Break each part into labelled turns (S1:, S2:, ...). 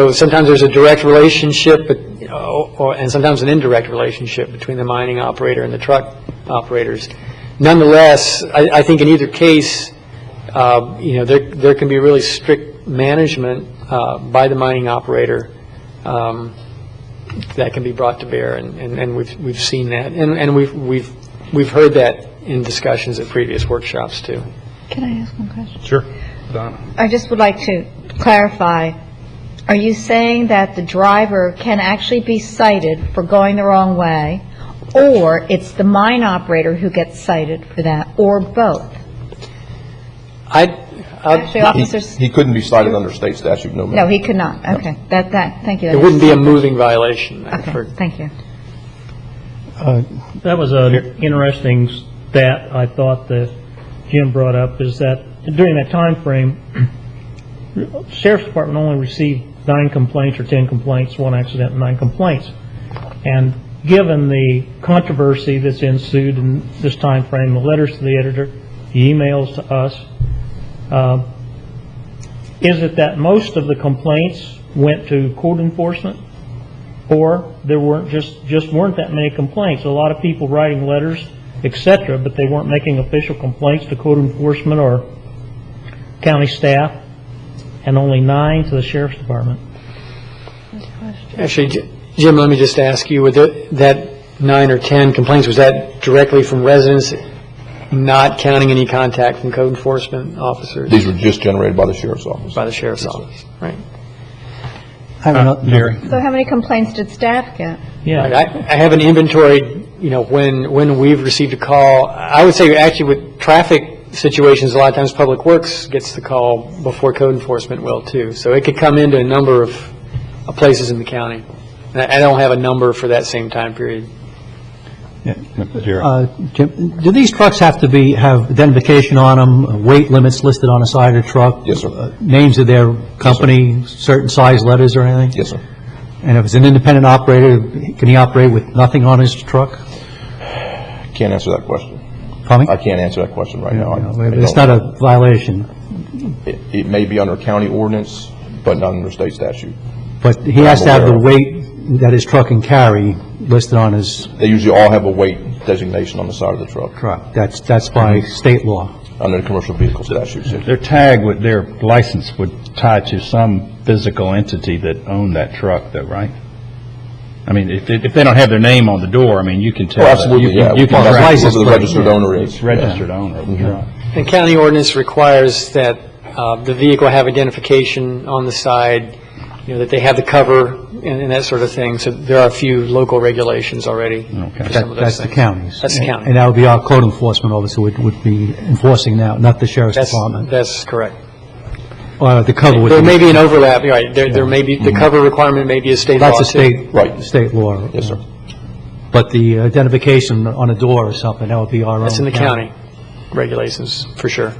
S1: So sometimes there's a direct relationship, but, or, and sometimes an indirect relationship between the mining operator and the truck operators. Nonetheless, I, I think in either case, uh, you know, there, there can be really strict management uh, by the mining operator um, that can be brought to bear, and, and and we've, we've seen that. And, and we've, we've, we've heard that in discussions at previous workshops, too.
S2: Can I ask one question?
S3: Sure. Donna?
S2: I just would like to clarify, are you saying that the driver can actually be cited for going the wrong way, or it's the mine operator who gets cited for that, or both?
S1: I, I-
S2: Actually, officers,
S3: He couldn't be cited under state statute, no
S2: no,
S3: matter.
S2: he could not, okay, that, that, thank you.
S1: it wouldn't be a moving violation for
S2: Okay, thank you.
S4: That was an interesting stat I thought that Jim brought up, is that during that time frame, sheriff's department only received nine complaints or 10 complaints, one accident, and nine complaints. And given the controversy that's ensued in this time frame, the letters to the editor, the emails to us, uh, is it that most of the complaints went to code enforcement? Or there weren't, just, just weren't that many complaints? A lot of people writing letters, et cetera, but they weren't making official complaints to code enforcement or county staff, and only nine to the sheriff's department.
S1: Actually, J- Jim, let me just ask you, with the- that nine or 10 complaints, was that directly from residents, not counting any contact from code enforcement officers
S3: These were just generated by the sheriff's office.
S1: by the sheriff's office? Right.
S3: Jerry?
S2: So how many complaints did staff get?
S1: Right,
S4: Yeah,
S1: I I haven't inventoried, you know, when, when we've received a call. I would say actually with traffic situations, a lot of times Public Works gets the call before code enforcement will too. So it could come into a number of uh, places in the county. And I I don't have a number for that same time period.
S5: Uh, Jim, do these trucks have to be, have identification on them, weight limits listed on the side of the truck?
S3: Yes, sir.
S5: Uh, Names of their company, certain size letters or anything?
S3: Yes, sir.
S5: And if it's an independent operator, can he operate with nothing on his truck?
S3: Can't answer that question.
S5: Tommy?
S3: I can't answer that question right now. I-
S5: Yeah,
S3: I
S5: yeah, It's
S3: don't-
S5: not a violation,
S3: It it may be under county ordinance, but not under state statute.
S5: but he has to have the
S3: aware.
S5: weight that his truck can carry listed on his
S3: They usually all have a weight designation on the side of the truck,
S5: truck. That's, that's
S3: Mm-hmm.
S5: by state law.
S3: under the commercial vehicle statutes.
S6: Their tag would, their license would tie to some physical entity that owned that truck, though, right? I mean, if, they- if they don't have their name on the door, I mean, you can tell.
S3: Oh,
S6: that-
S3: absolutely,
S6: you can-
S3: yeah.
S6: You can
S3: Well,
S6: track
S3: that's Who the Mm-hmm.
S5: plate.
S3: registered owner is.
S6: the registered owner of the truck.
S1: And county ordinance requires that uh, the vehicle have identification on the side, you know, that they have the cover and and that sort of thing. So there are a few local regulations already
S6: Okay.
S1: for
S6: That-
S1: some of those
S5: That's the
S1: things.
S5: county's.
S1: That's the county.
S5: And that would be our code enforcement officer would, would be enforcing that, not the sheriff's
S1: That's,
S5: department.
S1: that's correct.
S5: Or the cover would be. Mm-hmm.
S1: There may be an overlap, you're right, there, there may be, the cover requirement may be a state law,
S5: That's a
S1: too.
S5: state,
S3: Right.
S5: state law.
S3: Yes, sir.
S5: But the identification on a door or something, that would be our own.
S1: That's in the county regulations, for sure.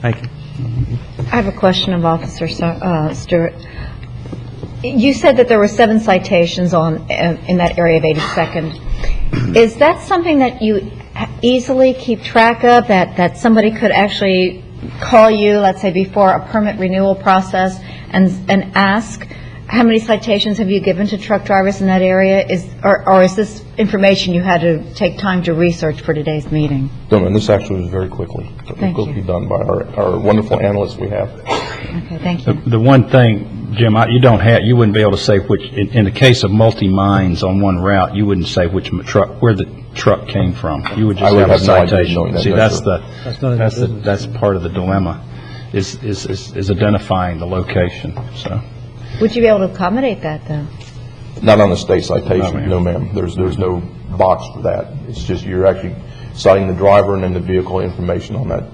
S5: Thank you.
S2: I have a question of Officer Sa- uh, Stewart. You said that there were seven citations on, uh, in that area of 82nd. Is that something that you easily keep track of, that, that somebody could actually call you, let's say, before a permit renewal process and, and ask, how many citations have you given to truck drivers in that area? Is, or, or is this information you had to take time to research for today's meeting?
S3: Done, and this actually was very quickly.
S2: Thank you.
S3: Quickly done by our our wonderful analysts we have.
S2: Okay, thank
S6: The
S2: you.
S6: the one thing, Jim, I- you don't have, you wouldn't be able to say which, in, in the case of multi-mines on one route, you wouldn't say which m- truck, where the truck came from. You would
S3: I
S6: just
S3: would
S6: have a
S3: have no idea knowing
S6: citation.
S3: that,
S6: See,
S3: no,
S6: that's
S3: sir.
S6: the,
S5: none of
S6: that's
S5: their
S6: the, that's part of the dilemma, is, is, is is identifying the location, so.
S2: Would you be able to accommodate that, though?
S3: Not on the state
S6: No,
S3: citation,
S6: ma'am.
S3: no ma'am. There's, there's no box for that. It's just, you're actually citing the driver and then the vehicle information on that.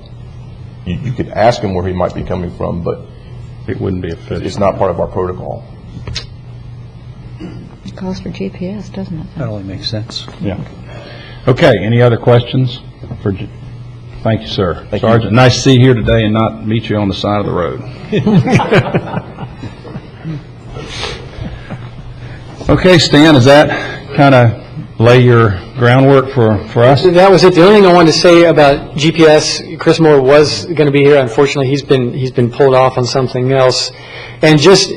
S3: You, you could ask him where he might be coming from, but
S6: It wouldn't be official.
S3: it's not part of our protocol.
S2: It calls for GPS, doesn't it?
S5: That only makes sense.
S6: Yeah. Okay, any other questions? for? J- Thank you, sir.
S3: you.
S6: Sergeant, nice to see you here today and not meet you on the side of the road. Okay, Stan, does that kind of lay your groundwork for, for us?
S1: That was it. The only thing I wanted to say about GPS, Chris Moore was going to be here. Unfortunately, he's been, he's been pulled off on something else. And just,